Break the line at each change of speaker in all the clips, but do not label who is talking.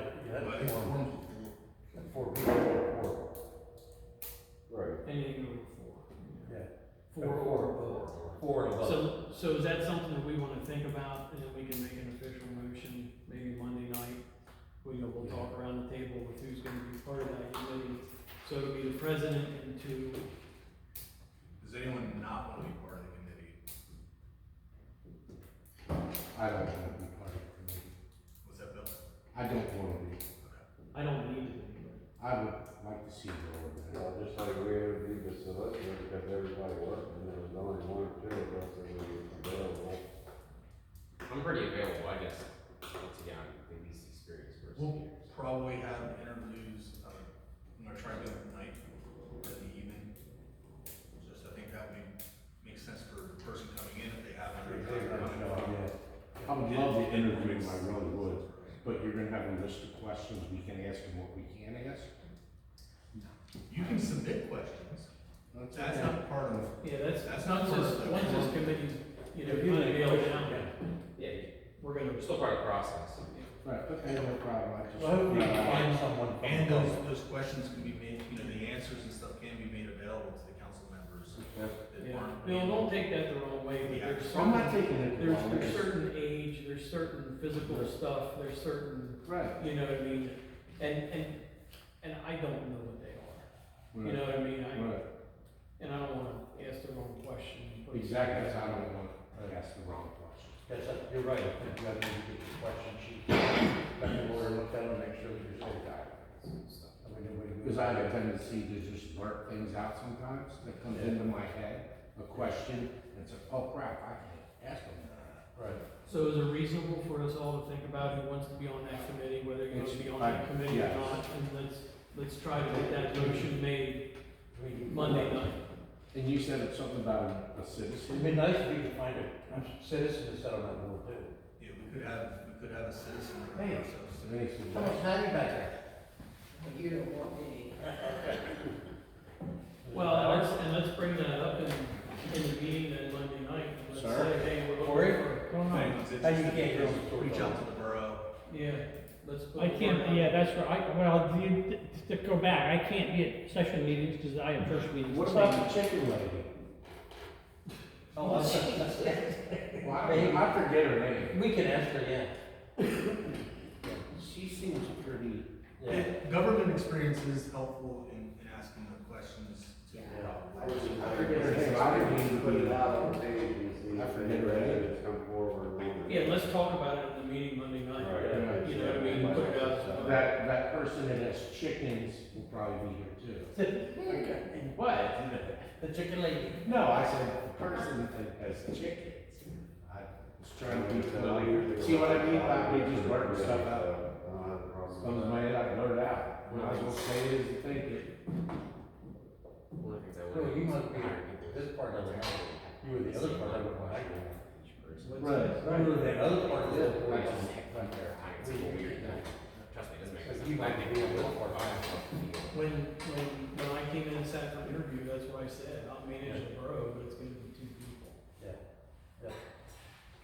Four.
Four people, four. Right.
Anything over
Yeah.
four. Four or
Four and
above.
above.
So, so is that something that we wanna think about, and then we can make an official motion, maybe Monday night? We, will talk around the table with who's gonna be part of that committee, so it'll be the president and two,
Does anyone not want to be part of the committee?
I don't want to be part of the committee.
What's that, Bill?
I don't want to be.
I don't need to be, but.
I would like to see more
Well, just like we interviewed the solicitor, because everybody worked, and there was only one or two of us that were available.
I'm pretty available, I guess, once again, I'm the least experienced person
Well-
here. so.
Probably have interviews, uh, I'm gonna try to do it at night or in the evening. Just, I think that would make sense for the person coming in if they have.
of
an
that.
interview.
Yeah. I would love to interview him, I really would, but you're gonna have a list of questions we can ask and what we can't ask.
You can submit questions. That's
okay.
not part of,
Yeah, that's,
That's not
once this,
part of the-
once this committee's, you know,
If you
kinda
make a
nailed
motion,
down,
yeah.
Yeah, you-
we're gonna,
we're still part of the process.
Right, okay, no problem, I just.
Well, I hope we can
Yeah.
find someone. from-
and those, those questions can be made, you know, the answers and stuff can be made available to the council members that
yeah.
aren't.
Bill, don't take that the wrong way, but
Yeah.
there's certain,
I'm not taking it. the
there's,
wrong
there's
way.
certain age, there's certain physical stuff, there's certain,
Right.
you know what I mean? And, and, and I don't know what they are, you know what I mean? I,
Right,
and I don't wanna ask the wrong question. but-
exactly, so I don't want to ask the wrong question.
That's, you're right, I think you have to get the question sheet, let the lawyer look at it, make sure that you're safe guy. I mean, nobody
Because I have a tendency to just blurt things out sometimes that comes into my head, a question, and it's like, oh crap, I can't ask them.
Right.
So is it reasonable for us all to think about who wants to be on that committee, whether you want to be on that
It's- I-
committee or
yeah.
not? And let's, let's try to get that motion made
We can-
Monday night.
And you said it's something about a
It'd
citizen.
be nice if we could find a citizen to set on that board too.
Yeah, we could have, we could have a citizen.
Hey.
ourselves.
It makes me
How much
laugh.
time you back there?
You don't want me.
Well, and let's, and let's bring that up in, in the meeting then Monday night, and let's
Sure.
say, hey, we're
Corey?
looking for.
If
Right.
anyone's
How you
interested,
get your-
just Reach out to the borough.
Yeah, let's put.
I
the word
can't,
out.
yeah, that's right, I- well, the- to go back, I can't be at session meetings, because I have church meetings.
What about the chicken lady?
Oh, I-
Well, I don't- I forget her name.
we can ask her, yeah.
She seems pretty,
Yeah.
Yeah, Government experience is helpful in, in asking the questions to the
I
problem.
forget
her name. I didn't even
Put it out on the page and see
I
if
forget
any
her name.
residents come forward. and-
Yeah, let's talk about it in the meeting Monday night.
Right.
You know what I mean? Put it out.
that, that person that has chickens will probably be here too. What?
The chicken lady.
No, I said the person that has chickens. I was trying to be familiar. See what I mean? Like, we just blurt stuff out.
I don't have a problem.
Comes to my head, I blurt it out. When I was gonna say it is to think it.
One of the things I
No,
would
Oh, you
do
must be
is hire people.
this part of the house. You were the other part of it when I grew up.
Each person.
Right.
You were the other part of it when I
Right.
was back there.
I- It's a little weird, no, trust me, it doesn't make
But
sense.
you
I
might
think
be a
I
little
will.
more
I will.
When, when, when I came in and sat for interview, that's what I said, I'll manage the borough, but it's gonna be two people.
Yeah. Yeah.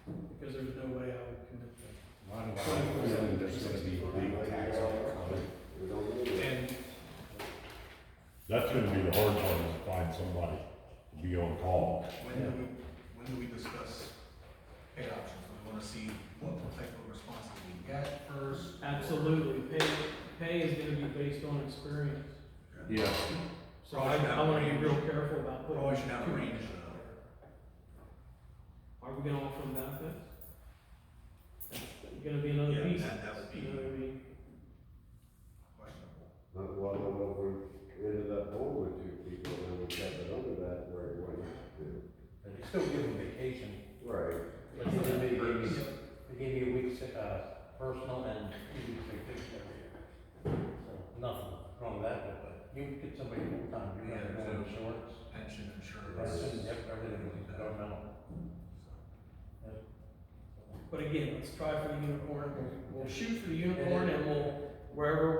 Because there's no way I would commit that.
Why do I have a feeling there's gonna be a big tax on it coming?
We don't need it.
And
That's gonna be the hard one, is find somebody to be on call.
when do we, when do we discuss pay options? We wanna see what type of response we get first.
Absolutely, pay, pay is gonna be based on experience.
Yeah.
So I, I wanna be real careful about
We
putting.
always should have a
too-
range though.
Are we gonna offer them benefits? That's Gonna be another
Yeah,
piece,
that, that would
you
be
know what I mean?
questionable.
But what if we ended up going with two people, then we kept it under that where it went to.
But you still give them vacation.
Right.
But you know, they gave you, they gave you a week's, uh, personal and two weeks vacation every year. So, Nothing wrong with that, but you could get somebody full time, you know,
Yeah,
they're going
so-
insurance.
Pension
That's just,
insurance.
yep, everything, I don't know.
But again, let's try for the unicorn, we'll shoot for the unicorn and we'll, wherever